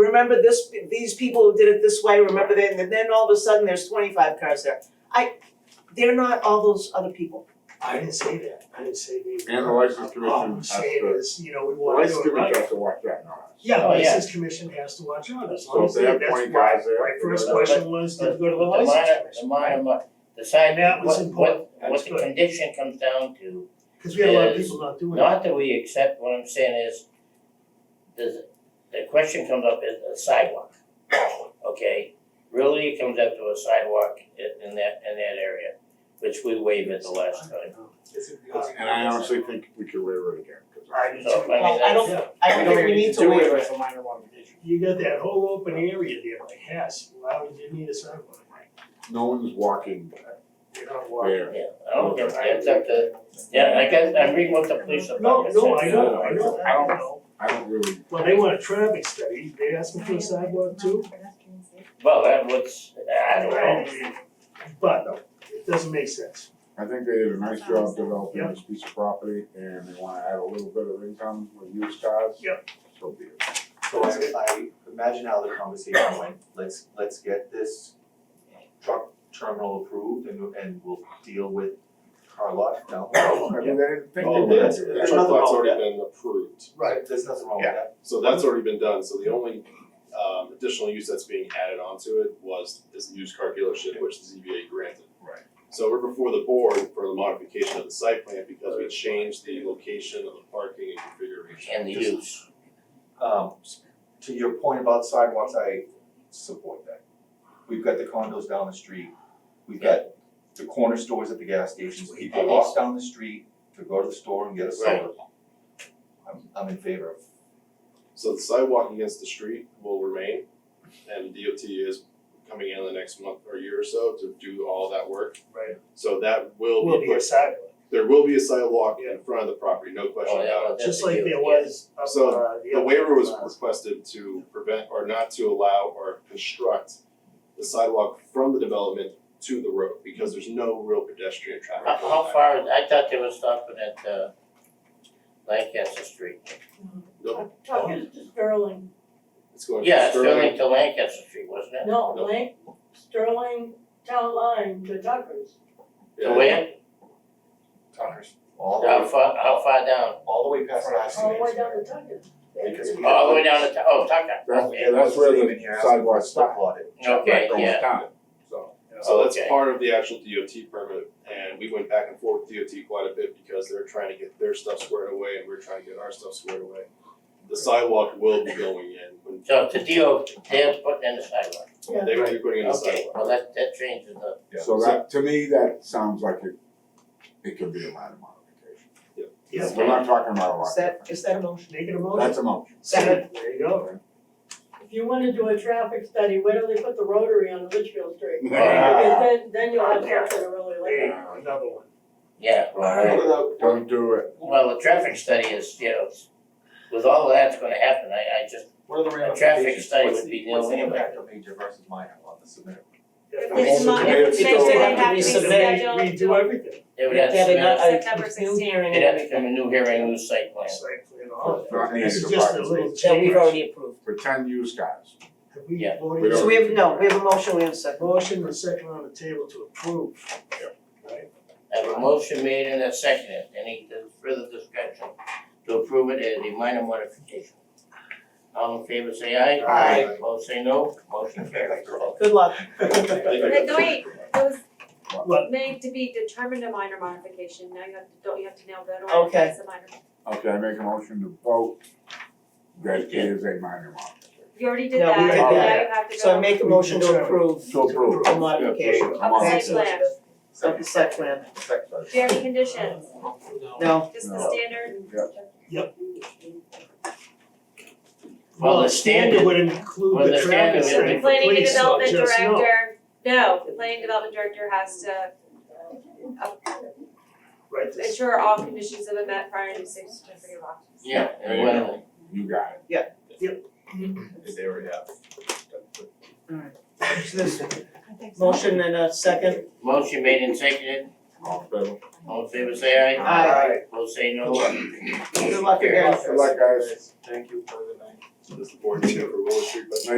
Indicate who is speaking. Speaker 1: remember this, these people who did it this way, remember that, and then all of a sudden, there's twenty-five cars there. I, they're not all those other people.
Speaker 2: I didn't say that, I didn't say they.
Speaker 3: And the license commission
Speaker 2: All I'm saying
Speaker 3: has to-
Speaker 2: is, you know, we
Speaker 3: The
Speaker 2: wanna
Speaker 3: license
Speaker 2: do it
Speaker 3: commission
Speaker 2: right.
Speaker 3: has to watch that now.
Speaker 2: Yeah, the
Speaker 4: Oh, yeah.
Speaker 2: license commission has to watch out, as
Speaker 3: So
Speaker 2: long
Speaker 3: if
Speaker 2: as
Speaker 3: they
Speaker 2: they,
Speaker 3: have
Speaker 2: that's
Speaker 3: 20
Speaker 2: why-
Speaker 3: guys there,
Speaker 2: my first
Speaker 3: you know,
Speaker 2: question was, did you go to the
Speaker 4: The
Speaker 2: license
Speaker 4: minor- The
Speaker 2: commission?
Speaker 4: minor, mo- the side,
Speaker 2: That was
Speaker 4: what,
Speaker 2: important.
Speaker 4: what,
Speaker 2: That's
Speaker 4: what the
Speaker 2: good.
Speaker 4: condition comes down to,
Speaker 2: Cause we had a lot of
Speaker 4: is
Speaker 2: people not doing it,
Speaker 4: not that we accept, what I'm saying is, does, the question comes up is a sidewalk, okay? Really, it comes up to a sidewalk in, in that, in that area, which we waived at the last time.
Speaker 3: And I honestly think we could waiver it again, cause I.
Speaker 2: I do
Speaker 4: So, I
Speaker 2: too.
Speaker 4: mean,
Speaker 1: Well, I don't,
Speaker 2: that's-
Speaker 1: I don't think we need to waiver.
Speaker 5: it for minor modification.
Speaker 2: You got that whole open area there, like, yes, why would you need a sidewalk?
Speaker 3: No one's walking
Speaker 2: You're not walking.
Speaker 3: there.
Speaker 4: Yeah, I don't, get- it's up to, yeah, I guess, I'm reading what the police
Speaker 2: No,
Speaker 4: department said.
Speaker 2: no, I know, I know, I
Speaker 3: I don't-
Speaker 2: know.
Speaker 3: I don't really,
Speaker 2: Well, they want a traffic study, they asking for a sidewalk too,
Speaker 4: Well, that was, I
Speaker 2: I
Speaker 4: don't know.
Speaker 2: But no, it doesn't make sense.
Speaker 3: I think they did a nice job developing this piece of property and they wanna add a little bit of income with used cars.
Speaker 2: Yep.
Speaker 3: So be it.
Speaker 6: So I I imagine how the conversation went, let's let's get this truck terminal approved and and we'll deal with car lot down the road.
Speaker 3: I mean, they didn't think they
Speaker 7: Oh,
Speaker 3: were.
Speaker 7: that's,
Speaker 3: gonna do
Speaker 7: that
Speaker 3: that.
Speaker 6: nothing
Speaker 7: lot's
Speaker 6: wrong with
Speaker 7: already been approved,
Speaker 6: Right. There's nothing wrong with that.
Speaker 7: so that's already been done, so the only um additional use that's being added onto it was is the used car dealership, which the ZBA granted.
Speaker 3: Right.
Speaker 7: So we're before the board for the modification of the site plan because we changed the location of the parking and configuration.
Speaker 4: And the use.
Speaker 6: Um to your point about sidewalks, I support that. We've got the condos down the street, we've got the corner stores at the gas stations, people walk down the street to go to the store and get a soda. I'm I'm in favor of
Speaker 7: So the sidewalk against the street will remain and DOT is coming in the next month or year or so to do all that work.
Speaker 2: Right.
Speaker 7: So that will
Speaker 2: Will
Speaker 7: be
Speaker 2: be a
Speaker 7: put,
Speaker 2: sidewalk.
Speaker 7: there will be a sidewalk in front of the property, no question
Speaker 4: Oh,
Speaker 7: about it.
Speaker 4: yeah, well, that's
Speaker 2: Just
Speaker 4: the
Speaker 2: like
Speaker 4: use,
Speaker 2: there
Speaker 4: yeah.
Speaker 2: was up,
Speaker 7: So,
Speaker 2: uh, the
Speaker 7: The
Speaker 2: other
Speaker 7: waiver was
Speaker 2: class.
Speaker 7: requested to prevent or not to allow or construct the sidewalk from the development to the road because there's no real pedestrian traffic.
Speaker 4: How, how far, is- I thought they were stopping at, uh, Lancaster Street.
Speaker 7: Nope,
Speaker 8: Talking to Sterling,
Speaker 7: it's going
Speaker 4: Yeah,
Speaker 7: to Sterling,
Speaker 4: Sterling to Lancaster Street, wasn't it?
Speaker 8: no,
Speaker 7: Nope.
Speaker 8: Lane, Sterling Town Line to Tucker's.
Speaker 7: yeah.
Speaker 4: To where,
Speaker 6: Tuckers. All the
Speaker 4: how
Speaker 6: way,
Speaker 4: far, how far down,
Speaker 6: all the way past last
Speaker 8: all the way down to Tucker's.
Speaker 6: Because we
Speaker 4: all the way down to, Tu- oh, Tucker,
Speaker 3: That's,
Speaker 4: Yeah,
Speaker 3: that's where the sidewalk
Speaker 6: stop
Speaker 3: stopped.
Speaker 4: okay, yeah.
Speaker 3: So,
Speaker 7: So that's
Speaker 4: Okay.
Speaker 7: part of the actual DOT permit and we went back and forth with DOT quite a bit because they're trying to get their stuff squared away and we're trying to get our stuff squared away. The sidewalk will be going in when
Speaker 4: So to deal, they're putting in the sidewalk,
Speaker 7: they're gonna be putting in the sidewalk.
Speaker 4: okay, well, that, that changes the,
Speaker 3: so that, to me, that sounds like it, it could be a minor modification.
Speaker 2: Yeah,
Speaker 3: We're not talking about a lot.
Speaker 1: Is that, is that a motion?
Speaker 2: make it a motion.
Speaker 3: That's a motion.
Speaker 1: Second.
Speaker 2: There you go.
Speaker 8: If you wanna do a traffic study, where do they put the rotary on Litchfield Street? Because
Speaker 3: Ah,
Speaker 8: then, then you'll have something to really
Speaker 2: There you
Speaker 8: like.
Speaker 2: go, another one.
Speaker 4: yeah, well,
Speaker 3: Don't do it.
Speaker 4: well, the traffic study is, you know, with all that's gonna happen, I, I just,
Speaker 6: What are the
Speaker 4: A traffic
Speaker 6: ramifications?
Speaker 4: study
Speaker 6: What's
Speaker 4: would be
Speaker 6: the- what's the
Speaker 4: dealing with
Speaker 6: impact of major versus minor on the submitted?
Speaker 1: It's
Speaker 3: mo- it's
Speaker 1: major, they have to be
Speaker 2: Resubmit, redo everything,
Speaker 4: they would have to
Speaker 1: Yeah, they
Speaker 4: submit,
Speaker 1: got
Speaker 4: a-
Speaker 1: a
Speaker 9: September
Speaker 1: new
Speaker 9: 16th.
Speaker 1: hearing
Speaker 4: they'd have to come a new hearing, new site plan.
Speaker 2: it's like, you know, all of
Speaker 3: Not
Speaker 2: that. This
Speaker 3: needed
Speaker 2: is
Speaker 3: to
Speaker 2: just a
Speaker 3: park.
Speaker 2: little
Speaker 1: that
Speaker 2: change.
Speaker 1: we've already approved.
Speaker 3: For ten used cars.
Speaker 2: Have we
Speaker 4: Yeah.
Speaker 2: voted?
Speaker 3: We don't-
Speaker 1: So we have, no, we have a motion, we have a second.
Speaker 2: Motion and second on the table to approve. Right?
Speaker 4: I have a motion made and a seconded, any further discussion to approve it as a minor modification? All in favor say aye.
Speaker 1: Aye.
Speaker 4: Opposed say no, motion carries.
Speaker 1: Good luck.
Speaker 9: Wait, wait, it
Speaker 2: What?
Speaker 9: was made to be determined a minor modification, now you have to, don't you have to nail that on?
Speaker 1: Okay.
Speaker 9: That's a minor,
Speaker 3: Okay, I make a motion to vote that it is a minor modification.
Speaker 9: you already did
Speaker 1: No,
Speaker 9: that,
Speaker 1: we
Speaker 9: now
Speaker 3: already did
Speaker 9: you
Speaker 1: that.
Speaker 9: have to go.
Speaker 1: So I make a motion to approve
Speaker 3: To approve.
Speaker 1: A modification.
Speaker 3: Yeah,
Speaker 9: Of the site
Speaker 3: modification.
Speaker 9: plan,
Speaker 1: of the site plan.
Speaker 9: do you have any conditions,
Speaker 1: No,
Speaker 9: just the
Speaker 3: No.
Speaker 9: standard?
Speaker 4: Well, the standard-
Speaker 2: would include
Speaker 4: well,
Speaker 2: the
Speaker 4: the
Speaker 2: traffic
Speaker 4: standard would
Speaker 2: study
Speaker 4: be-
Speaker 2: for
Speaker 9: Planning and
Speaker 2: police, so
Speaker 9: Development
Speaker 2: just no.
Speaker 9: Director, no, the Planning and Development Director has to uh,
Speaker 2: Right, this-
Speaker 9: ensure all conditions have been met prior to six certificate of occupancy.
Speaker 4: Yeah, and whatever.
Speaker 3: You got it.
Speaker 7: They already have.
Speaker 1: so there's motion and a second.
Speaker 4: motion made and seconded,
Speaker 3: All in favor?
Speaker 4: all in favor say aye.
Speaker 1: Aye.
Speaker 4: Opposed say no, motion
Speaker 1: Good luck again.
Speaker 3: Good luck, guys.
Speaker 2: Thank you for the night.
Speaker 6: This is the board meeting for Willow Street, but